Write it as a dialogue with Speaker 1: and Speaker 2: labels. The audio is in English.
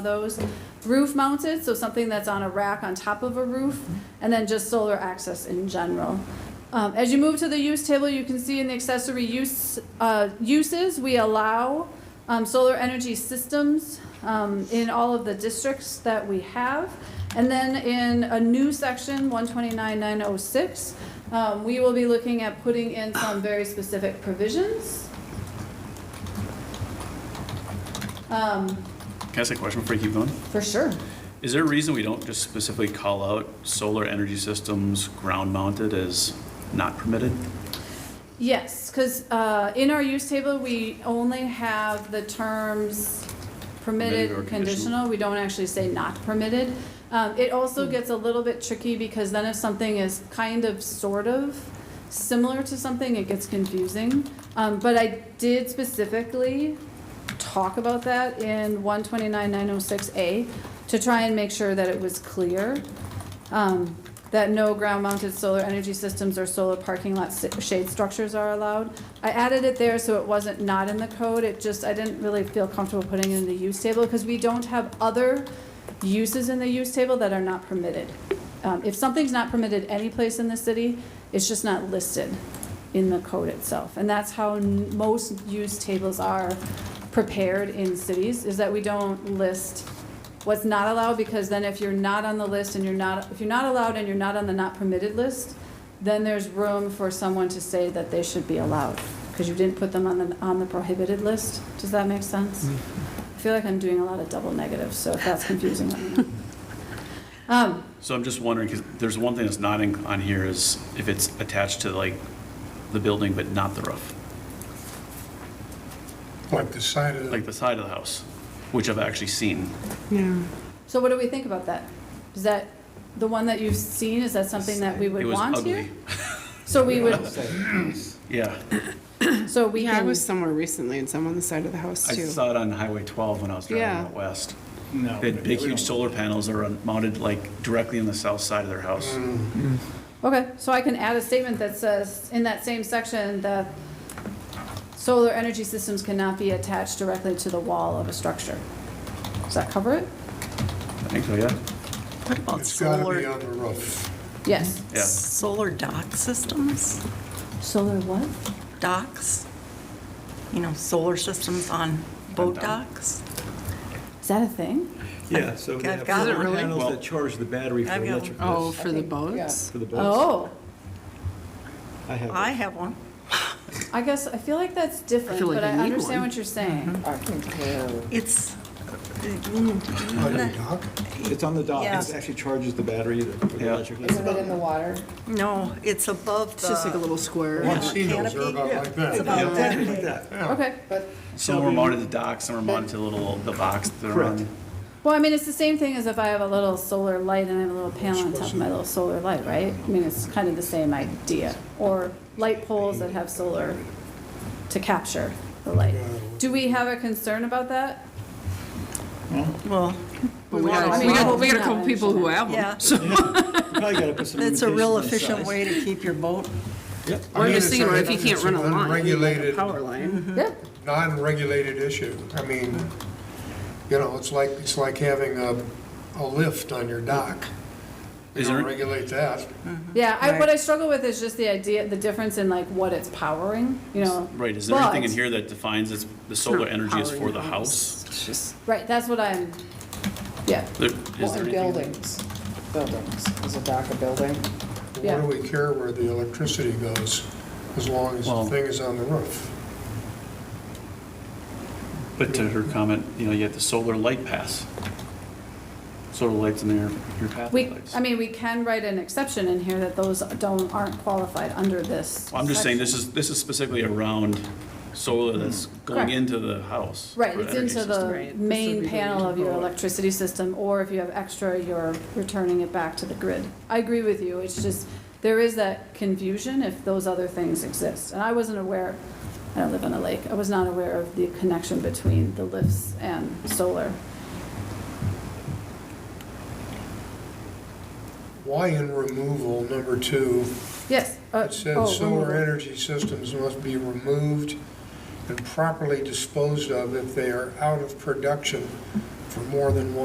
Speaker 1: those roof mounted, so something that's on a rack on top of a roof, and then just solar access in general. Um, as you move to the use table, you can see in the accessory use, uh, uses, we allow, um, solar energy systems, um, in all of the districts that we have. And then in a new section, one twenty-nine nine oh six, um, we will be looking at putting in some very specific provisions. Um,
Speaker 2: Can I ask a question before you keep going?
Speaker 1: for sure.
Speaker 2: Is there a reason we don't just specifically call out solar energy systems ground-mounted as not permitted?
Speaker 1: Yes, because in our use table, we only have the terms permitted
Speaker 2: Permitted or
Speaker 1: or
Speaker 2: conditional.
Speaker 1: conditional. We don't actually say not permitted. Um, It also
Speaker 2: Hmm.
Speaker 1: gets a little bit tricky because then if something is kind of, sort of similar to something, it gets confusing. Um, But I did specifically talk about that in 129-906A to try and make sure that it was clear um, that no ground-mounted solar energy systems or solar parking lot si- shade structures are allowed. I added it there so it wasn't not in the code, it just, I didn't really feel comfortable putting it in the use table, because we don't have other uses in the use table that are not permitted. Um, If something's not permitted any place in the city, it's just not listed in the code itself. And that's how n- most use tables are prepared in cities, is that we don't list what's not allowed, because then if you're not on the list and you're not, if you're not allowed and you're not on the not permitted list, then there's room for someone to say that they should be allowed, because you didn't put them on the, on the prohibited list. Does that make sense? I feel like I'm doing a lot of double negatives, so if that's confusing, let me know. Um,
Speaker 2: So I'm just wondering, because there's one thing that's not in- on here is if it's attached to like the building but not the roof,
Speaker 3: Like the side of,
Speaker 2: like
Speaker 3: the
Speaker 2: the side of the house, which I've actually seen.
Speaker 4: Yeah,
Speaker 1: So what do we think about that? Is that, the one that you've seen, is that something that we
Speaker 2: It
Speaker 1: would
Speaker 2: was
Speaker 1: want here?
Speaker 2: ugly.
Speaker 1: So we would,
Speaker 2: Yeah,
Speaker 1: so we
Speaker 4: yeah, I
Speaker 1: can,
Speaker 4: was somewhere recently and some on the side of the house
Speaker 2: I
Speaker 4: too.
Speaker 2: saw it on Highway 12 when I was driving
Speaker 4: Yeah.
Speaker 2: out west.
Speaker 5: No.
Speaker 2: They had big, huge solar panels that are mounted like directly on the south side of their house.
Speaker 1: okay, so I can add a statement that says, in that same section, that solar energy systems cannot be attached directly to the wall of a structure. Does that cover it?
Speaker 2: I think so, yeah.
Speaker 6: What about
Speaker 3: it's got to be
Speaker 6: solar,
Speaker 3: on the roof.
Speaker 1: Yes.
Speaker 2: Yeah.
Speaker 6: solar dock systems?
Speaker 1: Solar what?
Speaker 6: Docks? You know, solar systems on boat
Speaker 2: dock.
Speaker 6: docks?
Speaker 1: Is that a thing?
Speaker 5: Yeah, so they
Speaker 6: I've
Speaker 5: have
Speaker 6: got
Speaker 5: solar
Speaker 6: one.
Speaker 5: panels
Speaker 2: Well-
Speaker 5: that charge the battery for
Speaker 6: I've got one.
Speaker 5: electric.
Speaker 4: Oh, for the
Speaker 1: think- yeah.
Speaker 4: boats?
Speaker 5: For the boats.
Speaker 1: Oh,
Speaker 5: I have.
Speaker 6: I have one.
Speaker 1: I guess, I feel like that's different,
Speaker 4: feel like
Speaker 1: but I
Speaker 4: you need
Speaker 1: understand
Speaker 4: one.
Speaker 1: what you're saying.
Speaker 6: It's,
Speaker 4: Mm-hmm.
Speaker 3: On your dock?
Speaker 5: It's on the dock.
Speaker 6: Yeah.
Speaker 5: It actually charges the battery that-
Speaker 2: Yeah.
Speaker 5: for the electric.
Speaker 7: it in the water?
Speaker 6: no, it's above
Speaker 4: It's just like a
Speaker 6: the,
Speaker 4: little square.
Speaker 3: Casinos are about like
Speaker 5: Yeah,
Speaker 3: that.
Speaker 5: Exactly like that.
Speaker 1: Okay.
Speaker 2: Some were mounted to docks, some were mounted to the little, the box that they're
Speaker 5: Correct.
Speaker 2: on.
Speaker 1: Well, I mean, it's the same thing as if I have a little solar light and I have a little panel on top of my little solar light, right? I mean, it's kind of the same idea. Or light poles that have solar to capture the light. Do we have a concern about that?
Speaker 6: well,
Speaker 4: But we got,
Speaker 1: I
Speaker 4: a-
Speaker 1: mean,
Speaker 4: we got,
Speaker 1: well,
Speaker 4: we got
Speaker 1: yeah,
Speaker 4: a couple people who have them.
Speaker 6: yeah.
Speaker 5: You Probably gotta put some
Speaker 6: It's a real
Speaker 5: limitations on
Speaker 6: efficient way to keep your boat.
Speaker 5: size.
Speaker 4: Or just thinking, what if you can't run a line?
Speaker 3: Unregulated,
Speaker 4: Power line.
Speaker 1: Yeah.
Speaker 3: non-regulated issue. I mean, you know, it's like, it's like having a, a lift on your dock. You
Speaker 2: Is
Speaker 3: don't
Speaker 2: there-
Speaker 3: regulate that.
Speaker 1: Yeah, I, what I struggle with is just the idea, the difference in like what it's powering, you know?
Speaker 2: Right, is there anything in
Speaker 1: But-
Speaker 2: here that defines it's, the solar energy is for the
Speaker 4: Powering
Speaker 2: house?
Speaker 4: It's just,
Speaker 1: Right, that's what I'm, yeah,
Speaker 2: There-
Speaker 7: Well,
Speaker 2: Is there
Speaker 7: and
Speaker 2: anything?
Speaker 7: buildings, buildings, is a dock a building?
Speaker 3: Why
Speaker 1: Yeah.
Speaker 3: do we care where the electricity goes as long as the
Speaker 2: Well-
Speaker 3: thing is on the roof?
Speaker 2: But to her comment, you know, you have the solar light pass. Solar lights in there, your pathway
Speaker 1: we,
Speaker 2: lights.
Speaker 1: I mean, we can write an exception in here that those don't, aren't qualified under this.
Speaker 2: Well, I'm just saying,
Speaker 1: section.
Speaker 2: this is, this is specifically around solar that's going
Speaker 1: Mm-hmm. Correct.
Speaker 2: into the house.
Speaker 1: Right,
Speaker 2: for
Speaker 1: it's
Speaker 2: energy
Speaker 1: into
Speaker 2: system.
Speaker 1: the
Speaker 4: Right, this would
Speaker 1: main
Speaker 4: be the
Speaker 1: panel of your
Speaker 4: control.
Speaker 1: electricity system, or if you have extra, you're returning it back to the grid. I agree with you, it's just, there is that confusion if those other things exist. And I wasn't aware, I don't live on a lake, I was not aware of the connection between the lifts and solar.
Speaker 3: Why in removal, number two,
Speaker 1: Yes. uh,
Speaker 3: It said
Speaker 1: oh,
Speaker 3: solar
Speaker 1: removal.
Speaker 3: energy systems must be removed and properly disposed of if they are out of production for more than one.